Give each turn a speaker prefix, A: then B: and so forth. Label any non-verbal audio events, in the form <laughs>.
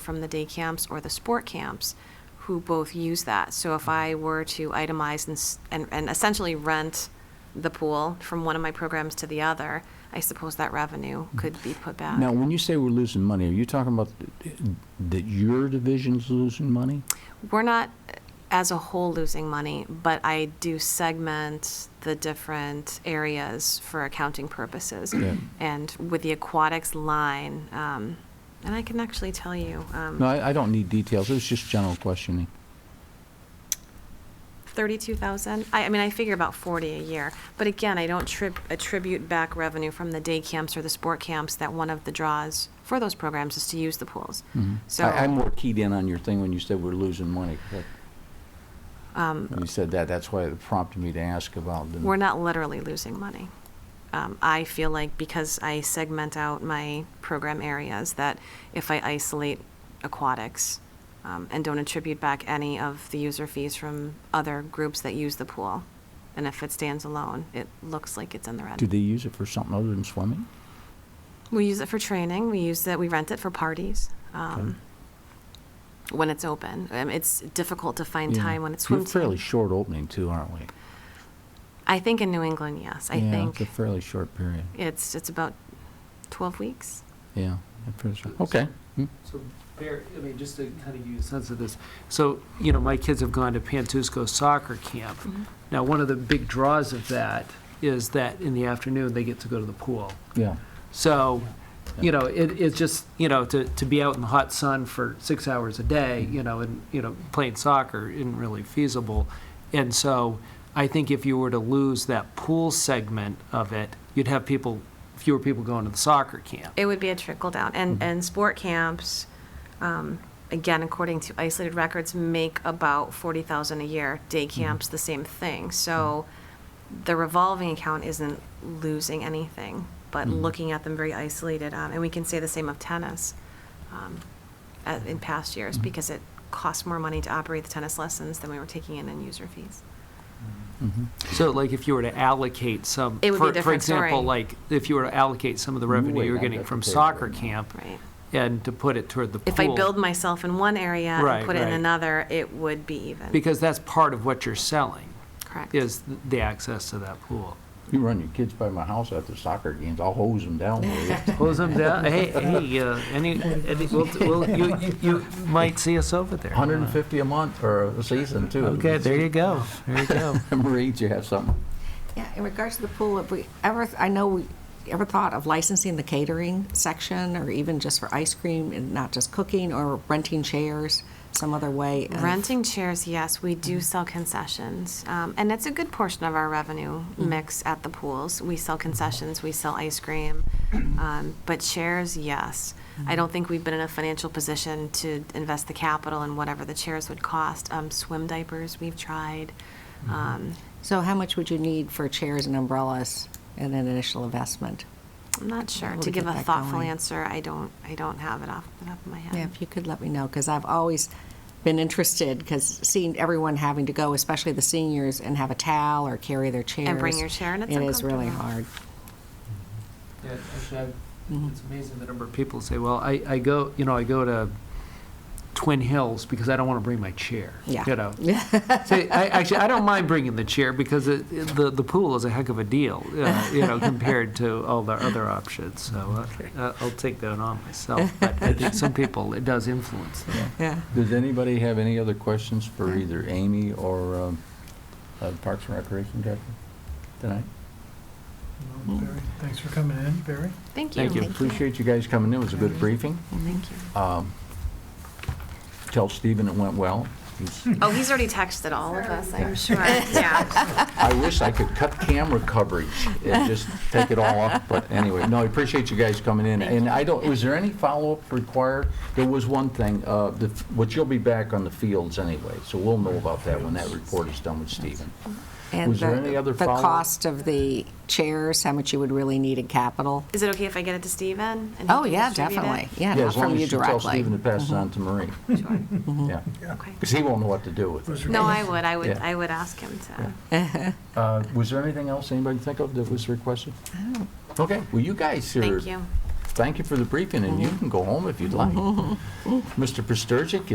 A: from the day camps or the sport camps who both use that. So if I were to itemize and, s- and, and essentially rent the pool from one of my programs to the other, I suppose that revenue could be put back.
B: Mm. Now, when you say we're losing money, are you talking about th- that your division's losing money?
A: We're not uh, as a whole losing money, but I do segment the different areas for accounting purposes.
B: Yeah.
A: And with the aquatics line, um, and I can actually tell you, um,
B: No, I, I don't need details. It was just general questioning.
A: 32,000. I, I mean, I figure about 40 a year. But again, I don't trib, attribute back revenue from the day camps or the sport camps that one of the draws for those programs is to use the pools.
B: Mhm.
A: So,
B: I, I'm more keyed in on your thing when you said we're losing money. 'cause that-
A: um,
B: When you said that, that's why it prompted me to ask about. the-
A: we're not literally losing money. Um, I feel like because I segment out my program areas, that if I isolate aquatics um, and don't attribute back any of the user fees from other groups that use the pool, and if it stands alone, it looks like it's in the red.
B: Do they use it for something other than swimming?
A: We use it for training. We use it. We rent it for parties um, when it's open. Um, it's difficult to find
B: Yeah.
A: time when it's
B: We're
A: swim team.
B: fairly short opening too, aren't we?
A: I think in New England, yes. I
B: yeah,
A: think
B: it's a fairly short period.
A: it's it's about twelve weeks.
B: Yeah. a fairly short- Okay. Hmm.
C: So, Bear, I mean, just to kind of give you a sense of this, so, you know, my kids have gone to Pantusco soccer camp.
B: Mm-hmm.
C: Now, one of the big draws of that is that in the afternoon, they get to go to the pool.
B: Yeah.
C: So, you know, it, it's just, you know, to, to be out in the hot sun for six hours a day, you know, and, you know, playing soccer isn't really feasible. And so I think if you were to lose that pool segment of it, you'd have people, fewer people going to the soccer camp.
A: It would be a trickle down, and
C: Mm-hmm.
A: and sport camps, um, again, according to isolated records, make about forty thousand a year. Day
C: Mm-hmm.
A: camps, the same thing. So, the revolving account isn't losing anything, but
C: Mm-hmm.
B: Mhm.
A: looking at them very isolated, um, and we can say the same of tennis, um, as in past years
C: Mm-hmm.
B: Mhm.
A: because it costs more money to operate the tennis lessons than we were taking in in user fees.
B: Mhm.
C: So like if you were to allocate some,
A: It would be
C: for,
A: a
C: for
A: different
C: example,
A: story.
C: like if you were to allocate some of the
B: You
C: revenue
B: would
C: you're
B: not
C: getting
B: have to
C: from
B: pay for
C: soccer
B: it now.
C: camp
A: Right.
C: and to put it toward the pool.
A: If I build myself in one area and
C: Right,
A: put it in
C: right.
A: another, it would be even.
C: Because that's part of what you're selling
A: Correct.
C: is the access to that pool.
B: You run your kids by my house after soccer games, I'll hose them down with it.
C: Close them down. Hey, hey, uh, any, any, we'll, we'll, you, you- you might see us over there.
B: 150 a month or a season too.
C: Okay, there you go. There you go.
B: <laughs> Marie, do you have something?
D: Yeah, in regards to the pool, have we ever, I know we ever thought of licensing the catering section or even just for ice cream and not just cooking or renting chairs some other way? of-
A: Renting chairs, yes, we do sell concessions. Um, and it's a good portion of our revenue
D: Mm.
A: mix at the pools. We sell concessions, we sell ice
D: <clears throat>
A: cream. Um, but chairs, yes.
D: Mm.
A: I don't think we've been in a financial position to invest the capital in whatever the chairs would cost. Um, swim diapers, we've tried.
D: Mm-hmm.
A: Um,
D: So how much would you need for chairs and umbrellas and an initial investment?
A: I'm not sure.
D: How
A: To
D: to
A: give
D: get
A: a
D: that
A: thoughtful
D: going.
A: answer, I don't, I don't have it off the top of my head.
D: Yeah, if you could let me know, because I've always been interested, because seeing everyone having to go, especially the seniors, and have a towel or carry their chairs.
A: bring your chair, and it's
D: It is really
A: uncomfortable.
D: hard.
C: Yeah, actually, I-
D: Mhm.
C: it's amazing the number of people say, well, I, I go, you know, I go to Twin Hills because I don't want to bring my chair.
D: Yeah.
C: You know? Say, I, actually, I don't mind bringing the chair because it, it- the, the pool is a heck of a deal, uh, you know, compared to all the other options. So uh, uh, I'll take that on myself. But I think some people, it does influence them.
D: Yeah.
B: Does anybody have any other questions for either Amy or um, uh, Parks and Recreation Director tonight?
E: Well, Barry, thanks for coming in, Barry.
A: Thank you.
C: Thank you.
B: Appreciate you guys coming in. It was a good briefing.
A: Thank you.
B: Um, Tell Stephen it went well. He's-
A: Oh, he's already texted all of us, <laughs> I'm sure. Yeah.
B: I wish I could cut camera coverage and just take it all off, but anyway, no, I appreciate you guys coming in. And I don't, was there any follow-up required? There was one thing, uh, the- which you'll be back on the fields anyway, so we'll know about that when that report is done with Stephen.
D: And
B: Was there
D: the-
B: any other
D: The
B: follow-up?
D: cost of the chairs, how much you would really need in capital?
A: Is it okay if I get it to Steven? and he
D: Oh,
A: can
D: yeah,
A: distribute it?
D: definitely. Yeah, not
B: as long
D: from
B: as
D: you
B: Tell Stephen to
D: directly.
B: pass it on to Marie,
A: Sure.
B: yeah.
A: Okay.
B: Because he won't know what to do with it.
A: No, I would, I would,
B: Yeah.
A: I would ask him to.
B: Uh, Was there anything else anybody think of that was requested? Okay, well, you guys are
A: Thank you.
B: thank you for the briefing, and you can go home if you'd like. Mr. Pristurgic,